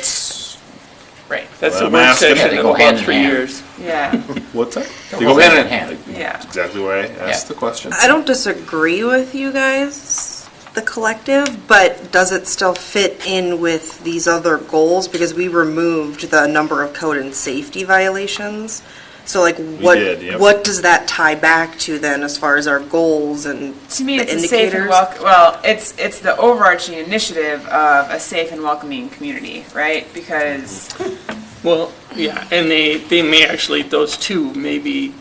That's, Right. That's the I'm work asking. session Yeah, they in go hand about in three hand. years. Yeah, what's that? They go hand in hand. yeah. Exactly why I asked Yeah. the question. I don't disagree with you guys, the collective, but does it still fit in with these other goals? Because we removed the number of code and safety violations. So like, did, what, yep. what does that tie back to then as far as our goals and To me, the it's a safe and indicators? welcome. Well, it's it's the overarching initiative of a safe and welcoming community, right? Because Well, yeah, and they, they may actually, those two may be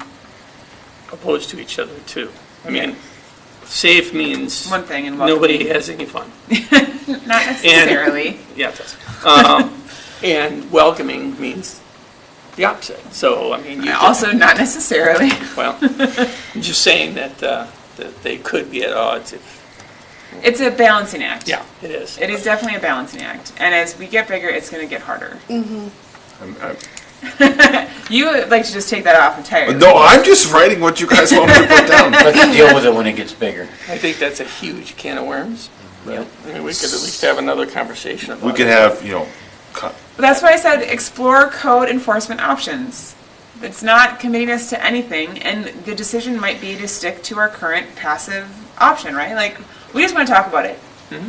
opposed to each other too. I mean, safe means one thing and welcoming, nobody has any fun. not necessarily. Yeah, it does. Um, And welcoming means the opposite. So, I mean, you could, also, not necessarily. well, I'm just saying that, uh, that they could be at odds if, It's a balancing act. yeah, it is. It is definitely a balancing act, and as we get bigger, it's going to get harder. I'm- I'm- You would like to just take that off entirely. No, I'm just writing what you guys want me to put down. Let's deal with it when it gets bigger. I think that's a huge can of worms. Yep. I mean, we could at least have another conversation about it. We could have, you know, co- But that's why I said explore code enforcement options. It's not committing us to anything, and the decision might be to stick to our current passive option, right? Like, we just want to talk about it.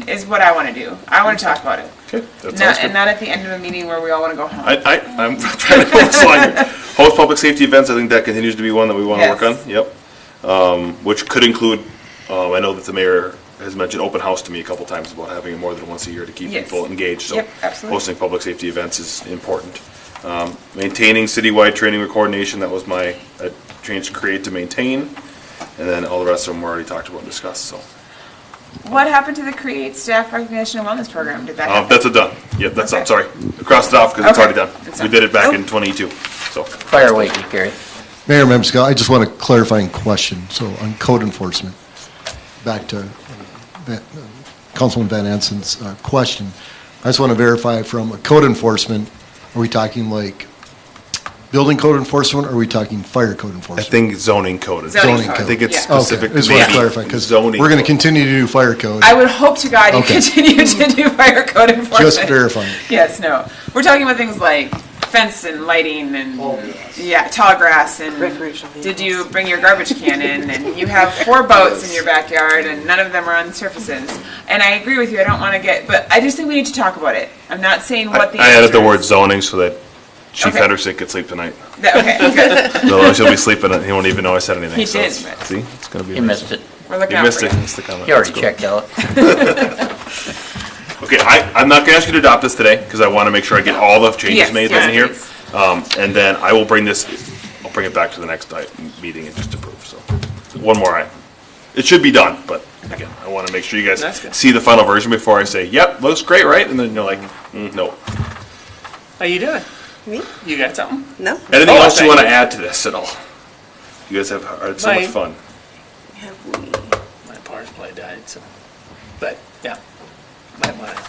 Is what I want to do. I want to talk about it. okay, Mm-hmm. that sounds Not, and good. not at the end of a meeting where we all want to go home. I, I, I'm trying to hold this line here. Host public safety events, I think that continues to be one that we want to work Yes. on, yep. Um, which could include, uh, I know that the mayor has mentioned open house to me a couple times about having it more than once a year to keep Yes. people engaged, so. Yep, absolutely. Hosting public safety events is important. Um, maintaining citywide training or coordination, that was my, I changed create to maintain. And then all the rest of them were already talked about and discussed, so. what happened to the Create Staff Recognition and Wellness Program? Did that Uh, happen? that's a done, yep, that's done, Okay. sorry. I Crossed it off because it's Okay, already done. it's We done. Oh. did it back in twenty-two, so. Fire away, Gary. Mayor, Member Scott, I just want a clarifying question, so on code enforcement, back to Van- Councilman Van Anson's uh, question. I just want to verify from a code enforcement, are we talking like building code enforcement, or are we talking fire code I enforcement? think zoning code is. Zoning I code. think it's Yeah. specific. Okay, I just want maybe to clarify, because we're zoning going to code. continue to do fire code, I would hope to God you Okay. continue to do fire code enforcement. just verifying. Yes, no. We're talking about things like fence and lighting and, yeah, tall grass and. Recreational vehicles. Did you bring your garbage can in and you have four boats in your backyard and none of them are on surfaces? And I agree with you, I don't want to get, but I just think we need to talk about it. I'm not saying what the. I added the answer word is. zoning so that Chief Okay. Henderson could sleep tonight. That- Okay, good. Otherwise, he'll be sleeping and he won't even know I said anything. He so did, it's- but- See, it's gonna be. He missed it. We're looking You out missed for it. you. Missed the comment. He already That's cool. checked out. Okay, I, I'm not gonna ask you to adopt this today because I want to make sure I get all the changes Yes, made yes, in here. please. Um, and then I will bring this, I'll bring it back to the next di- meeting and just approve, so. One more item. It should be done, but again, I want to make sure you That's guys good. see the final version before I say, yep, looks great, right? And then you're like, "Mm, no. How you doing? Me? You got something? No? Anything Oh, I else you thought want to you- add to this at all? You guys have had so much Mine. fun. My power supply died, so, but, yeah, might want to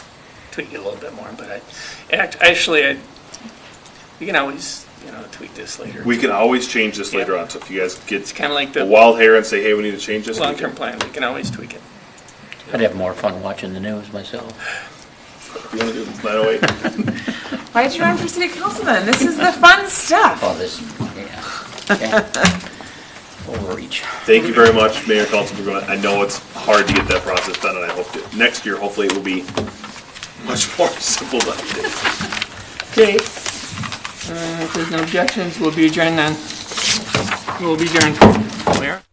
tweak it a little bit more, but I, act- actually, I, we can always, you know, tweak this later. We can always change this Yeah. later on. So if you guys get Kind of like the the wild hair and say, "Hey, we need to change this," we can- long-term plan, we can always tweak it. I'd have more fun watching the news myself. if you want to do 908, Why did you run for city council then? This is the fun Oh. stuff. All this, yeah. Okay. Overreach. thank you very much, Mayor Council. For going. I know it's hard to get that process done, and I hope that next year, hopefully, it will be much more simple than it is. Okay. Uh, if there's no objections, we'll be adjourned then. We'll be adjourned. Where?